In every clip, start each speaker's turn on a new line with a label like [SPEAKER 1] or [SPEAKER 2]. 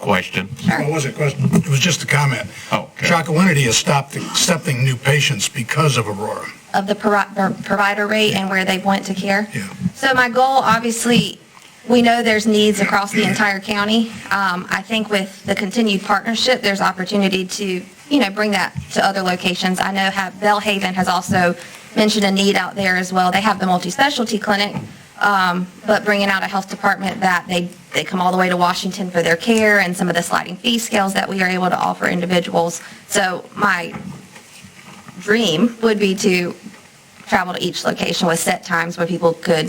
[SPEAKER 1] question.
[SPEAKER 2] No, It wasn't a question, it was just a comment.
[SPEAKER 1] Oh, okay.
[SPEAKER 2] Shakawinity has stopped accepting new patients because of Aurora.
[SPEAKER 3] of the pro- or provider rate and where they went to care.
[SPEAKER 2] Yeah.
[SPEAKER 3] So my goal, obviously, we know there's needs across the entire county. Um, I think with the continued partnership, there's opportunity to, you know, bring that to other locations. I know have, Bellhaven has also mentioned a need out there as well. They have the multi-specialty clinic, um, but bringing out a health department that they, they come all the way to Washington for their care and some of the sliding fee scales that we are able to offer individuals. So my dream would be to travel to each location with set times where people could,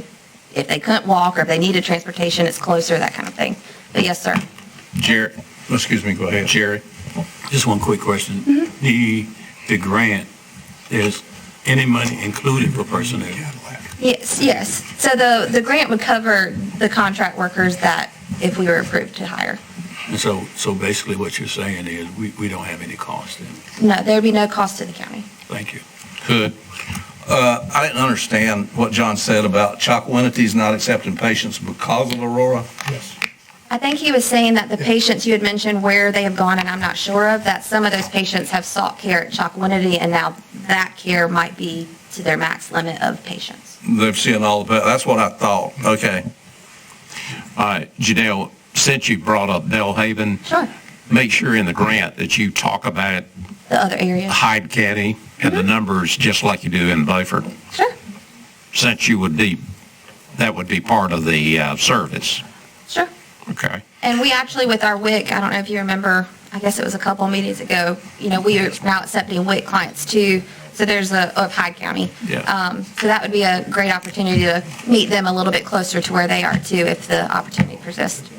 [SPEAKER 3] if they couldn't walk or if they needed transportation, it's closer, that kind of thing. But yes, sir.
[SPEAKER 1] Jerry,
[SPEAKER 2] Excuse me, go ahead.
[SPEAKER 1] Jerry,
[SPEAKER 4] Just one quick question. The, the grant, is any money included for personnel?
[SPEAKER 3] Yes, yes. So the, the grant would cover the contract workers that, if we were approved to hire.
[SPEAKER 4] And so, so basically what you're saying is, we, we don't have any cost in, it.
[SPEAKER 3] No, there'd be no cost to the county.
[SPEAKER 4] thank you.
[SPEAKER 1] could.
[SPEAKER 5] Uh, I didn't understand what John said about Chocowinity's not accepting patients because of Aurora.
[SPEAKER 2] Yes.
[SPEAKER 3] I think he was saying that the patients you had mentioned where they have gone, and I'm not sure of, that some of those patients have sought care at Chocowinity, and now that care might be to their max limit of patients.
[SPEAKER 5] They're seeing all the, pa- that's what I thought. Okay.
[SPEAKER 1] All right, Janelle, since you brought up Bellhaven,
[SPEAKER 3] Sure.
[SPEAKER 1] make sure in the grant that you talk about
[SPEAKER 3] The other areas.
[SPEAKER 1] Hyde County and the numbers, just like you do in Beaufort,
[SPEAKER 3] Sure.
[SPEAKER 1] since you would be, that would be part of the uh, service.
[SPEAKER 3] Sure.
[SPEAKER 1] Okay.
[SPEAKER 3] And we actually, with our WIC, I don't know if you remember, I guess it was a couple of meetings ago, you know, we are now accepting WIC clients too. So there's a, of Hyde County.
[SPEAKER 1] Yeah.
[SPEAKER 3] Um, So that would be a great opportunity to meet them a little bit closer to where they are too, if the opportunity persists.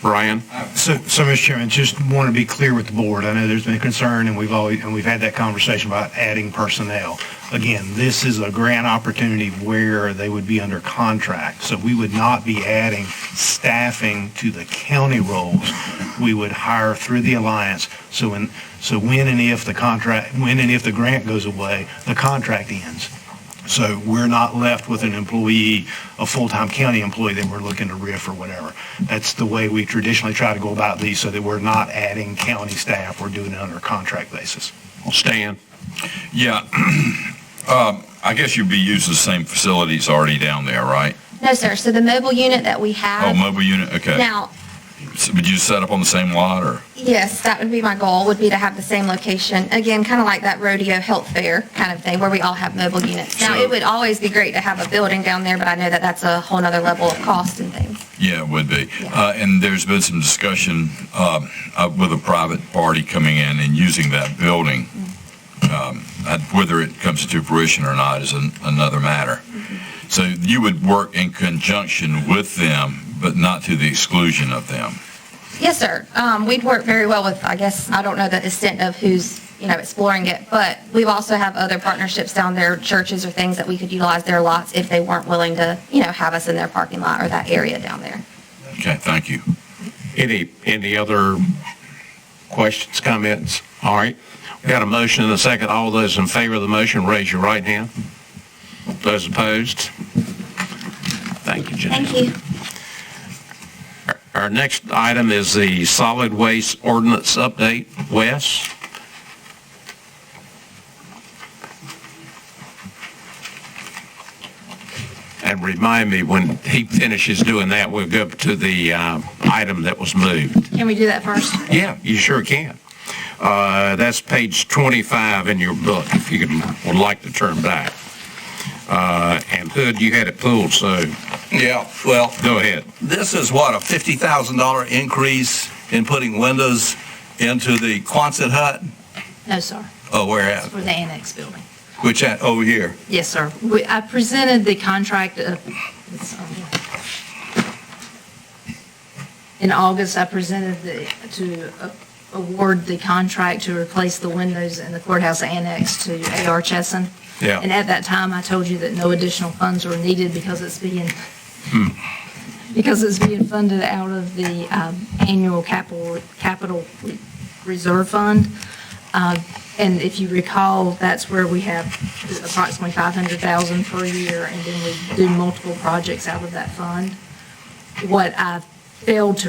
[SPEAKER 1] Brian?
[SPEAKER 6] So, so, Mr. Chairman, just want to be clear with the board. I know there's been concern, and we've always, and we've had that conversation about adding personnel. Again, this is a grant opportunity where they would be under contract, so we would not be adding staffing to the county roles. We would hire through the alliance, so when, so when and if the contract, when and if the grant goes away, the contract ends. So we're not left with an employee, a full-time county employee that we're looking to riff or whatever. That's the way we traditionally try to go about these, so that we're not adding county staff, we're doing it under a contract basis.
[SPEAKER 1] Stan?
[SPEAKER 7] Yeah. Um, I guess you'd be using the same facilities already down there, right?
[SPEAKER 3] No, sir. So the mobile unit that we
[SPEAKER 7] Oh,
[SPEAKER 3] have
[SPEAKER 7] mobile unit, okay.
[SPEAKER 3] now,
[SPEAKER 7] So Would you set up on the same lot, or?
[SPEAKER 3] Yes, that would be my goal, would be to have the same location. Again, kind of like that rodeo health fair kind of thing, where we all have mobile units. Now, it
[SPEAKER 7] So-
[SPEAKER 3] would always be great to have a building down there, but I know that that's a whole nother level of cost and things.
[SPEAKER 7] Yeah, it would be. Uh, And there's been some discussion um, uh, with a private party coming in and using that building. Um, and Whether it comes to fruition or not is an- another matter. So you would work in conjunction with them, but not to the exclusion of them.
[SPEAKER 3] Yes, sir. Um, we'd work very well with, I guess, I don't know the extent of who's, you know, exploring it, but we also have other partnerships down there, churches or things that we could utilize their lots if they weren't willing to, you know, have us in their parking lot or that area down there.
[SPEAKER 7] Okay, thank you.
[SPEAKER 1] Any, any other questions, comments? All right. We got a motion and a second. All those in favor of the motion, raise your right hand. Those opposed? Thank you, Janelle.
[SPEAKER 3] Thank you.
[SPEAKER 1] Our next item is the solid waste ordinance update. Wes? And remind me, when he finishes doing that, we'll go to the uh, item that was moved.
[SPEAKER 3] Can we do that first?
[SPEAKER 1] Yeah, you sure can. Uh, That's page 25 in your book, if you could- would like to turn back. Uh, And Hood, you had it pulled, so
[SPEAKER 5] Yeah, well,
[SPEAKER 1] go ahead.
[SPEAKER 5] this is what, a $50,000 increase in putting windows into the Quonset hut?
[SPEAKER 8] No, sir,
[SPEAKER 5] Oh, where at?
[SPEAKER 8] for the annex building.
[SPEAKER 5] Which at, over here?
[SPEAKER 8] Yes, sir. We- I presented the contract uh, it's on here. in August, I presented the, to uh, award the contract to replace the windows in the courthouse annex to AR Chesson.
[SPEAKER 1] Yeah.
[SPEAKER 8] And at that time, I told you that no additional funds were needed because it's being, because it's being funded out of the um, annual capital, capital reserve fund. Uh, And if you recall, that's where we have approximately 500,000 per year, and then we do multiple projects out of that fund. What I failed to